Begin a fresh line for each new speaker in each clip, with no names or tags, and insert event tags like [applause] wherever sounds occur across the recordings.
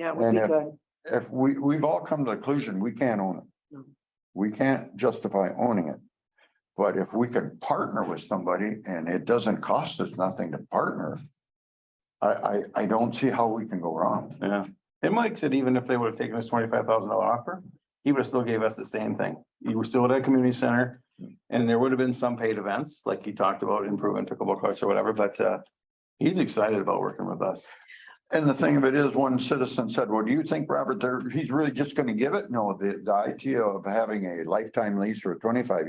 Yeah, it would
And
be
if-
good.
if we, we've all come to the conclusion, we can't own it.
No.
We can't justify owning it. But if we could partner with somebody and it doesn't cost us nothing to partner. I, I, I don't see how we can go wrong.
Yeah, and Mike said even if they would have taken his twenty-five thousand dollar offer, he would have still gave us the same thing. You were still at a community center. And there would have been some paid events, like he talked about improving pickleball courts or whatever, but uh. He's excited about working with us.
And the thing of it is, one citizen said, well, do you think, Robert, there, he's really just gonna give it? No, the, the idea of having a lifetime lease or a twenty-five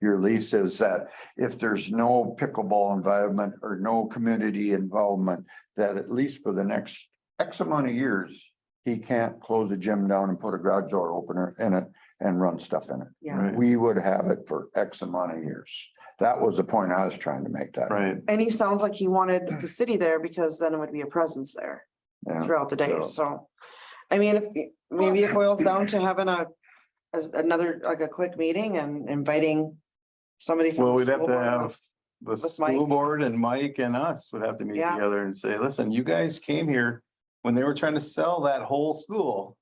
year lease is that if there's no pickleball involvement or no community involvement, that at least for the next X amount of years, he can't close a gym down and put a garage door opener in it and run stuff in it.
Yeah.
Right,
We would have it for X amount of years. That was the point I was trying to make that.
Right,
And he sounds like he wanted the city there because then it would be a presence there
Yeah.
throughout the day,
so-
so. I mean, if, maybe it boils down to having a, a- another, like a quick meeting and inviting somebody. from
well,
the
we'd have
school
to
board.
have the
With Mike.
school board and Mike and us would have to meet
Yeah.
together and say, listen, you guys came here. When they were trying to sell that whole school,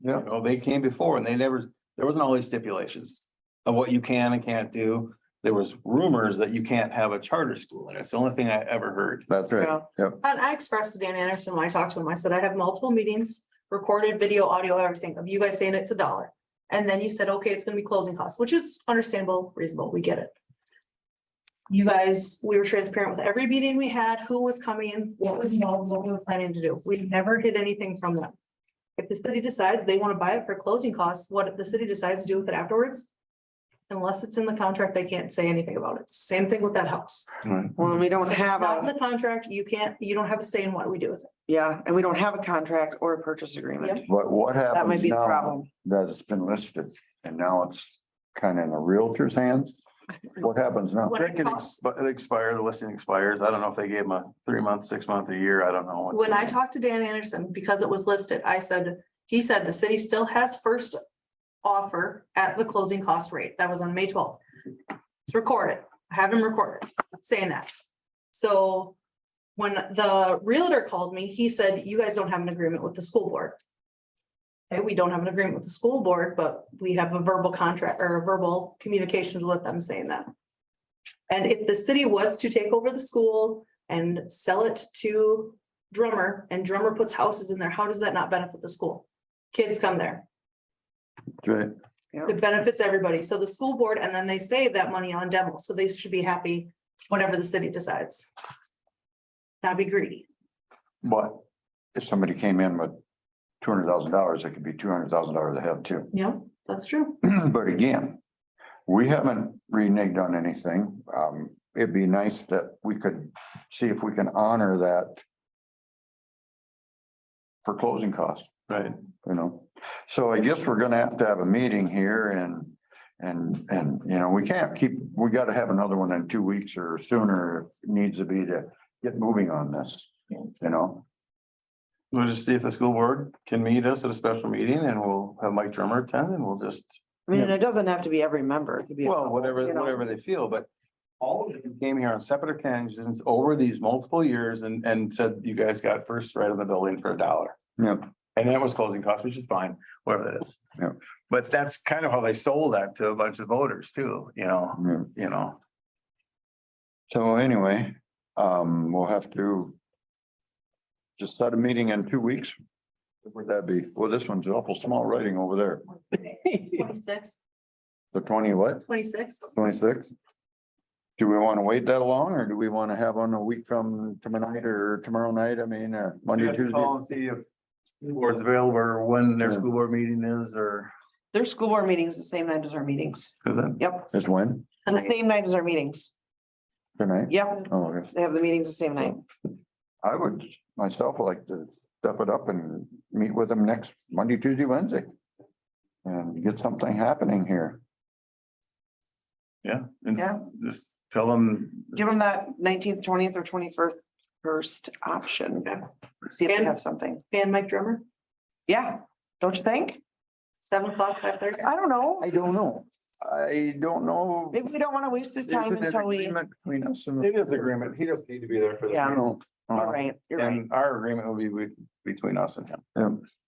Yeah.
You know, they came before and they never, there wasn't all these stipulations of what you can and can't do. There was rumors that you can't have a charter school and it's the only thing I ever heard.
That's
Yeah.
right. Yep.
And I expressed to Dan Anderson when I talked to him, I said, I have multiple meetings, recorded video, audio, everything of you guys saying it's a dollar. And then you said, okay, it's gonna be closing costs, which is understandable, reasonable, we get it. You guys, we were transparent with every meeting we had, who was coming, what was involved, what we were planning to do. We never hid anything from them. If the city decides they wanna buy it for closing costs, what the city decides to do with it afterwards, unless it's in the contract, they can't say anything about it. Same thing with that house.
Well, we don't
If it's
have
not in
a,
The contract, you can't, you don't have a say in what we do with it.
yeah, and we don't have a contract or a purchase agreement.
Yep.
But what happens now?
That might be the problem.
that's been listed and now it's kind of in a realtor's hands. What happens now?
What-
It could ex- it expired, the listing expires. I don't know if they gave them a three month, six month, a year. I don't know. what-
When I talked to Dan Anderson, because it was listed, I said, he said the city still has first offer at the closing cost rate. That was on May twelfth. It's recorded. I Have him recorded saying that. So when the realtor called me, he said, you guys don't have an agreement with the school board. Okay, we don't have an agreement with the school board, but we have a verbal contract or a verbal communications with them saying that. And if the city was to take over the school and sell it to drummer and drummer puts houses in there, how does that not benefit the school? Kids come there,
Right.
it benefits everybody. So the school board, and then they save that money on demo, so they should be happy, whatever the city decides. Not be greedy.
But if somebody came in with two hundred thousand dollars, it could be two hundred thousand dollars ahead too. [clears throat]
Yeah, that's true.
But again, we haven't reneged on anything. Um, it'd be nice that we could see if we can honor that for closing costs.
Right.
you know. So I guess we're gonna have to have a meeting here and, and, and, you know, we can't keep, we gotta have another one in two weeks or sooner. if it Needs to be to get moving on this, you know,
We'll just see if the school board can meet us at a special meeting and we'll have Mike Drummer attend and we'll just,
I mean, it doesn't have to be every member. It could be. a
well,
couple,
whatever,
you know.
whatever they feel, but. All of them came here on separate occasions over these multiple years and, and said, you guys got first right on the building for a dollar.
yeah,
And that was closing costs, which is fine, whatever that is.
Yeah.
But that's kind of how they sold that to a bunch of voters too, you know,
yeah.
you know,
So anyway, um, we'll have to just set a meeting in two weeks. Would that be, well, this one's awful small writing over there.
Twenty-six,
The twenty what?
twenty-six.
Twenty-six? Do we want to wait that long or do we want to have on a week from tomorrow night or tomorrow night? I mean, uh,
You
Monday,
have to
Tuesday?
call and see if school board's available or when their
Yeah.
school board meeting is or.
Their school board meetings the same night as our meetings.
Cause then,
Yep,
Is when?
the same night as our meetings.
Tonight?
Yep,
Oh, okay.
they have the meetings the same night.
I would myself like to step it up and meet with them next Monday, Tuesday, Wednesday. And get something happening here.
yeah, and s-
Yeah.
just tell them.
Give them that nineteenth, twentieth or twenty-first first option. See if they
And-
have something.
And Mike Drummer,
Yeah, don't you think?
seven o'clock, five thirty.
I don't know.
I don't know. I don't know.
Maybe we don't want to waste this
There's
time
an
until we,
agreement Between us and.
It is agreement. He doesn't need to be there for
Yeah.
I don't
all right, you're right.
And our agreement will be with- between us and him.
Um,